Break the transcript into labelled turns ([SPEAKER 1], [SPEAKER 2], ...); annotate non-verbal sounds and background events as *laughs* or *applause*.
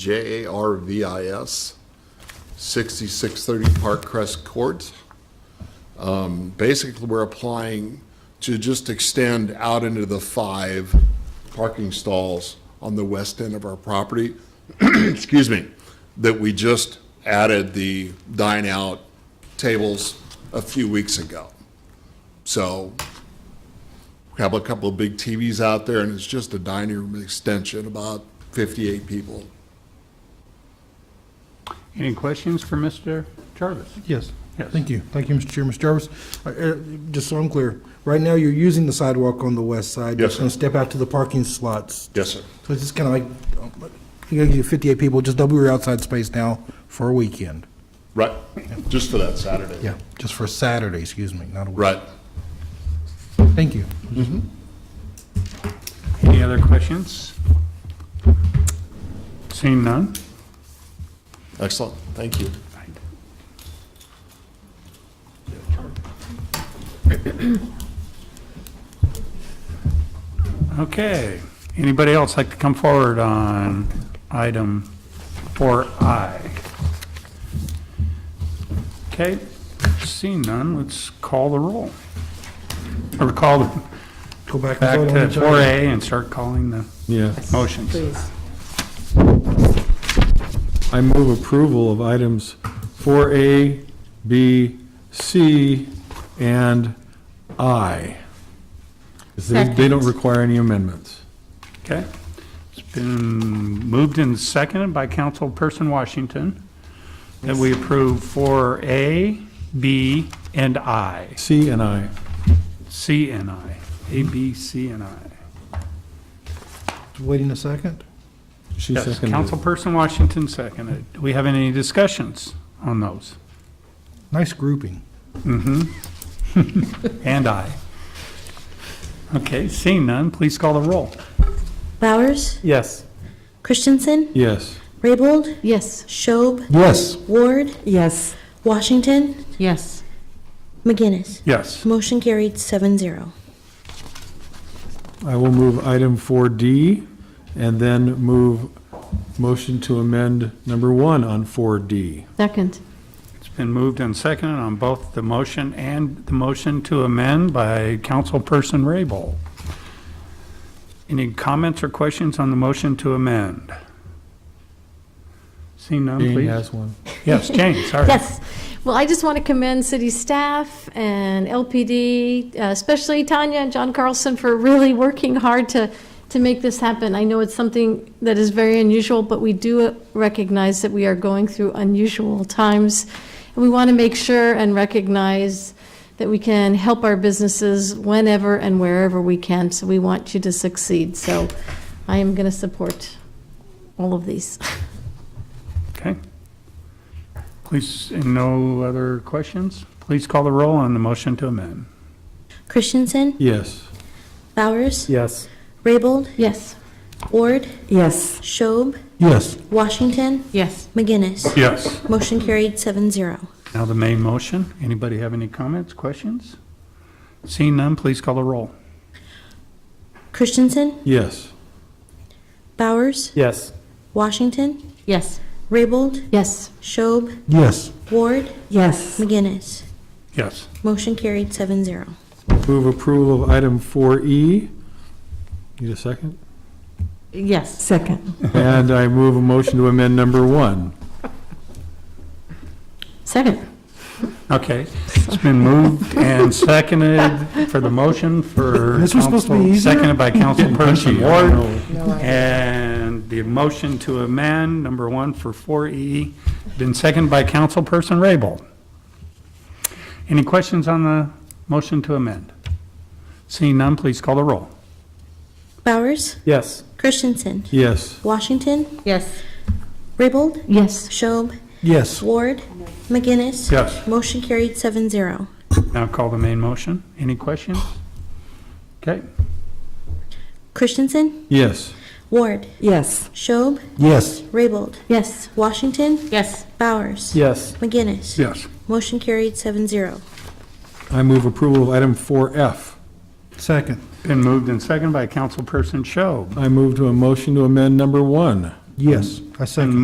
[SPEAKER 1] J A R V I S, 6630 Park Crest Court. Um, Basically, we're applying to just extend out into the five parking stalls on the west end of our property, *clears throat* excuse me, that we just added the dine-out tables a few weeks ago. So we have a couple of big TVs out there, and it's just a dining room extension, about 58 people.
[SPEAKER 2] Any questions for Mr. Jarvis?
[SPEAKER 3] Yes.
[SPEAKER 2] Yes.
[SPEAKER 3] Thank you. Thank you, Mr. Chair. Mr. Jarvis, uh, uh, just so I'm clear, right now you're using the sidewalk on the west side.
[SPEAKER 1] Yes,
[SPEAKER 3] You're going to step out to the parking slots.
[SPEAKER 1] Yes, sir.
[SPEAKER 3] So it's just kind of like, um, you're going to get 58 people, just double your outside space now for a weekend.
[SPEAKER 1] Right, just for that Saturday.
[SPEAKER 3] Yeah, just for Saturday, excuse me, not a weekend.
[SPEAKER 1] Right.
[SPEAKER 3] Thank you.
[SPEAKER 2] Any other questions? Seeing none?
[SPEAKER 1] Excellent, thank you.
[SPEAKER 2] Okay. Anybody else like to come forward on item 4I? Okay, seeing none, let's call the roll. Or call the-
[SPEAKER 3] Go back
[SPEAKER 2] back
[SPEAKER 3] and vote
[SPEAKER 2] to
[SPEAKER 3] on each other.
[SPEAKER 2] 4A and start calling the
[SPEAKER 4] Yeah,
[SPEAKER 2] motions.
[SPEAKER 5] Please.
[SPEAKER 4] I move approval of items 4A, B, C, and I. 'Cause They they don't
[SPEAKER 5] Second.
[SPEAKER 4] require any amendments.
[SPEAKER 2] Okay. It's been moved and seconded by Councilperson Washington that we approve 4A, B, and I.
[SPEAKER 4] C and I.
[SPEAKER 2] C and I. A, B, C, and I.
[SPEAKER 3] Waiting a second?
[SPEAKER 4] She
[SPEAKER 2] Yes,
[SPEAKER 4] seconded. it.
[SPEAKER 2] Councilperson Washington seconded. Do we have any discussions on those?
[SPEAKER 3] Nice grouping.
[SPEAKER 2] And I. Okay, seeing none, please call the roll.
[SPEAKER 6] Bowers,
[SPEAKER 2] Yes.
[SPEAKER 6] Christensen,
[SPEAKER 4] Yes.
[SPEAKER 6] Raybold,
[SPEAKER 5] Yes.
[SPEAKER 6] Schob,
[SPEAKER 3] Yes.
[SPEAKER 6] Ward,
[SPEAKER 5] Yes.
[SPEAKER 6] Washington,
[SPEAKER 5] Yes.
[SPEAKER 6] McGinnis.
[SPEAKER 2] Yes.
[SPEAKER 6] Motion carried seven zero.
[SPEAKER 4] I will move item 4D and then move motion to amend number one on 4D.
[SPEAKER 5] Second.
[SPEAKER 2] It's been moved and seconded on both the motion and the motion to amend by Councilperson Raybold. Any comments or questions on the motion to amend? Seeing none,
[SPEAKER 4] Jane
[SPEAKER 2] please.
[SPEAKER 4] has one.
[SPEAKER 2] Yes, Jane, sorry.
[SPEAKER 7] Yes. Well, I just want to commend city staff and LPD, uh, especially Tanya and John Carlson for really working hard to, to make this happen. I know it's something that is very unusual, but we do recognize that we are going through unusual times. And we want to make sure and recognize that we can help our businesses whenever and wherever we can. So we want you to succeed. So I am going to support all of these. *laughs*
[SPEAKER 2] Okay. Please, and no other questions? Please call the roll on the motion to amend.
[SPEAKER 6] Christensen,
[SPEAKER 4] Yes.
[SPEAKER 6] Bowers,
[SPEAKER 4] Yes.
[SPEAKER 6] Raybold,
[SPEAKER 7] Yes.
[SPEAKER 6] Ward,
[SPEAKER 5] Yes.
[SPEAKER 6] Schob,
[SPEAKER 3] Yes.
[SPEAKER 6] Washington,
[SPEAKER 5] Yes.
[SPEAKER 6] McGinnis.
[SPEAKER 2] Yes.
[SPEAKER 6] Motion carried seven zero.
[SPEAKER 2] Now the main motion. Anybody have any comments, questions? Seeing none, please call the roll.
[SPEAKER 6] Christensen,
[SPEAKER 4] Yes.
[SPEAKER 6] Bowers,
[SPEAKER 4] Yes.
[SPEAKER 6] Washington,
[SPEAKER 5] Yes.
[SPEAKER 6] Raybold,
[SPEAKER 7] Yes.
[SPEAKER 6] Schob,
[SPEAKER 3] Yes.
[SPEAKER 6] Ward,
[SPEAKER 5] Yes.
[SPEAKER 6] McGinnis.
[SPEAKER 2] Yes.
[SPEAKER 6] Motion carried seven zero.
[SPEAKER 4] Move approval of item 4E. Need a second?
[SPEAKER 5] Yes. Second.
[SPEAKER 4] And I move a motion to amend number one.
[SPEAKER 5] Second.
[SPEAKER 2] Okay, it's been moved and seconded for the motion for.
[SPEAKER 3] This was supposed to be
[SPEAKER 2] council-
[SPEAKER 3] easier?
[SPEAKER 2] Seconded by Councilperson
[SPEAKER 4] Punchy, I
[SPEAKER 2] Ward.
[SPEAKER 4] know.
[SPEAKER 2] And the motion to amend, number one for 4E, been seconded by Councilperson Raybold. Any questions on the motion to amend? Seeing none, please call the roll.
[SPEAKER 6] Bowers,
[SPEAKER 4] Yes.
[SPEAKER 6] Christensen,
[SPEAKER 4] Yes.
[SPEAKER 6] Washington,
[SPEAKER 5] Yes.
[SPEAKER 6] Raybold,
[SPEAKER 5] Yes.
[SPEAKER 6] Schob,
[SPEAKER 3] Yes.
[SPEAKER 6] Ward, McGinnis.
[SPEAKER 2] Yes.
[SPEAKER 6] Motion carried seven zero.
[SPEAKER 2] Now call the main motion. Any questions? Okay,
[SPEAKER 6] Christensen,
[SPEAKER 4] Yes.
[SPEAKER 6] Ward,
[SPEAKER 5] Yes.
[SPEAKER 6] Schob,
[SPEAKER 3] Yes.
[SPEAKER 6] Raybold,
[SPEAKER 5] Yes.
[SPEAKER 6] Washington,
[SPEAKER 5] Yes.
[SPEAKER 6] Bowers,
[SPEAKER 4] Yes.
[SPEAKER 6] McGinnis.
[SPEAKER 2] yes.
[SPEAKER 6] Motion carried seven zero.
[SPEAKER 4] I move approval of item 4F.
[SPEAKER 3] Second.
[SPEAKER 2] Been moved and seconded by Councilperson Show.
[SPEAKER 4] I move to a motion to amend number one.
[SPEAKER 3] Yes, I second.